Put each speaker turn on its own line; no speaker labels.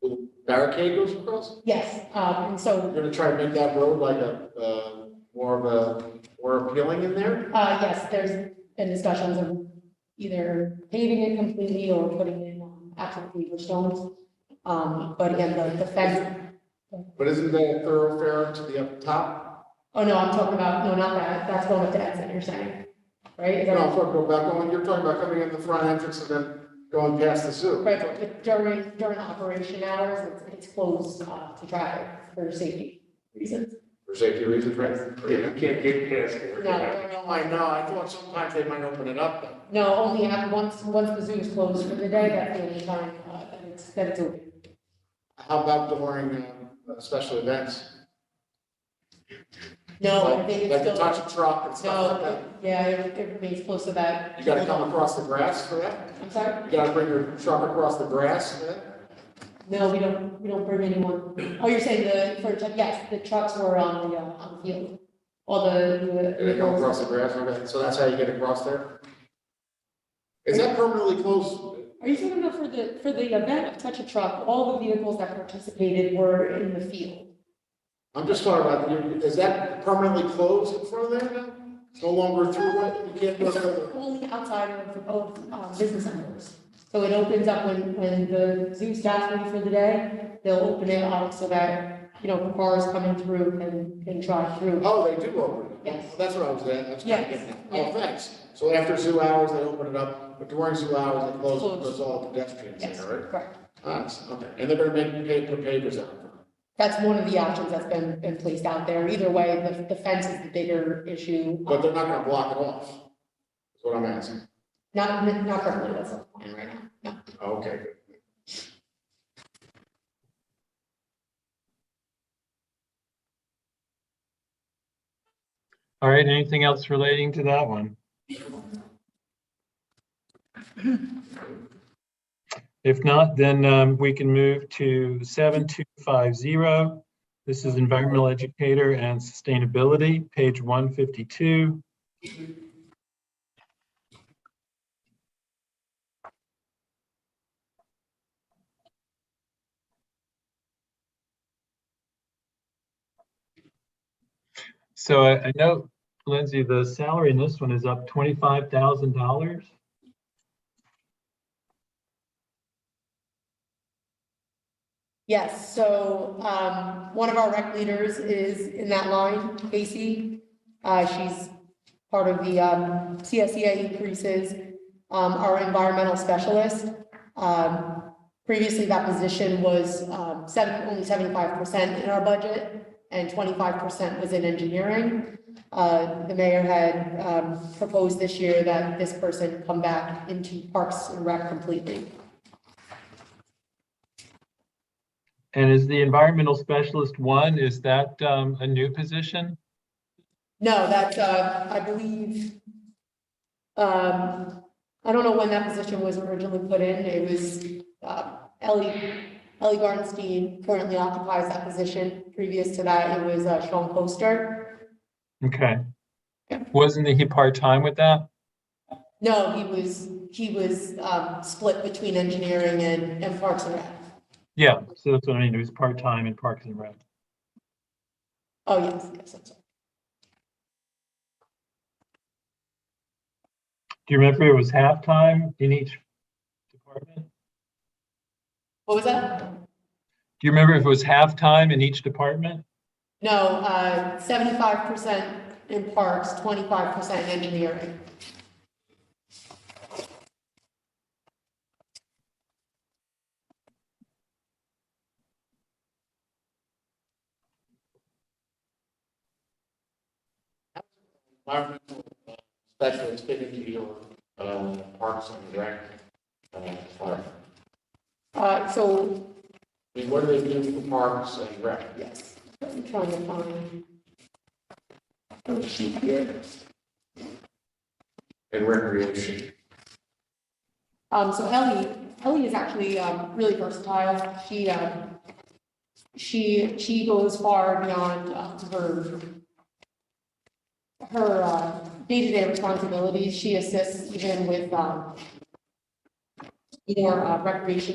the barricade goes across?
Yes, um, and
We're
so,
gonna try to make that road like a, uh, more of a, more appealing in there?
uh, yes, there's been discussions of either paving it completely or putting in um, absolutely which stones. Um, but again, the, the fence,
But isn't that a thoroughfare to the up top?
oh no, I'm talking about, no, not that, that's going up to Edson, you're saying, right? Is
No,
that-
I'm talking about going, you're talking about coming in the front entrance and then going past the zoo.
Right, but with- during, during operation hours, it's, it's closed, uh, to traffic for safety reasons.
For safety reasons, right?
Yeah, you can't get past it.
No,
No, I know, I thought sometimes they might open it up, but
no, only at, once, once the zoo is closed for the day, that's the only time, uh, that it's, that it's open.
how about during, uh, special events?
No, I
Like-
think
Like
it's
the
still,
touch truck and stuff like
no,
that.
yeah, it it remains close to that.
You gotta come across the grass for that?
I'm sorry?
You gotta bring your truck across the grass for that?
No, we don't, we don't bring anyone. Oh, you're saying the, for, yes, the trucks were on the, uh, on the field. All the, the
And they come
vehicles.
across the grass, okay, so that's how you get across there? Is that permanently closed?
Are you talking about for the, for the event of Touch a Truck, all the vehicles that participated were in the field?
I'm just talking about, you- is that permanently closed in front of there now? It's no longer through, you can't go
It's
there.
only outside of, of um, business hours. So it opens up when, when the zoo staff leaves for the day, they'll open it up so that, you know, cars coming through can, can drive through.
Oh, they do open it?
Yes.
That's what I was at, I was trying to get that.
Yes,
Oh, thanks. So after zoo hours, they open it up, but during zoo hours, they close it,
Close.
because all pedestrians in
Yes,
there, right?
correct.
Nice, okay, and they're gonna make, pay, put papers out.
That's one of the options that's been, been placed out there. Either way, the, the fence is the bigger issue.
But they're not gonna block it off, is what I'm asking.
Not, not currently, that's the plan right now.
Okay, good.
All right, anything else relating to that one? If not, then um, we can move to 7250. This is Environmental Educator and Sustainability, page 152. So I I know, Lindsay, the salary in this one is up $25,000.
Yes, so um, one of our rec leaders is in that line, Casey. Uh, She's part of the um, CSEA increases, um, our environmental specialist. Um, Previously, that position was um, seven, only seventy-five percent in our budget and twenty-five percent was in engineering. Uh, The mayor had um, proposed this year that this person come back into Parks and Rec completely.
And is the environmental specialist one, is that um, a new position?
No, that's, uh, I believe, um, I don't know when that position was originally put in. It was, uh, Ellie, Ellie Gartenstein currently occupies that position. Previous to that, it was, uh, Sean Poster.
Okay. Wasn't he part-time with that?
No, he was, he was, um, split between engineering and, and Parks and Rec.
Yeah, so that's what I mean, it was part-time in Parks and Rec.
Oh, yes, yes, I'm sorry.
Do you remember it was half-time in each department?
What was that?
Do you remember if it was half-time in each department?
No, uh, seventy-five percent in parks, twenty-five percent in engineering.
environmental uh, specialist given to your uh, parks and rec uh, department?
Uh, so
I mean, what do they do for parks and rec?
Yes, I'm trying to find. Oh, sheet here.
And recreation.
Um, so Ellie, Ellie is actually, um, really versatile. She, um, she, she goes far beyond, um, her, her, uh, day-to-day responsibilities. She assists even with, um, more uh, recreation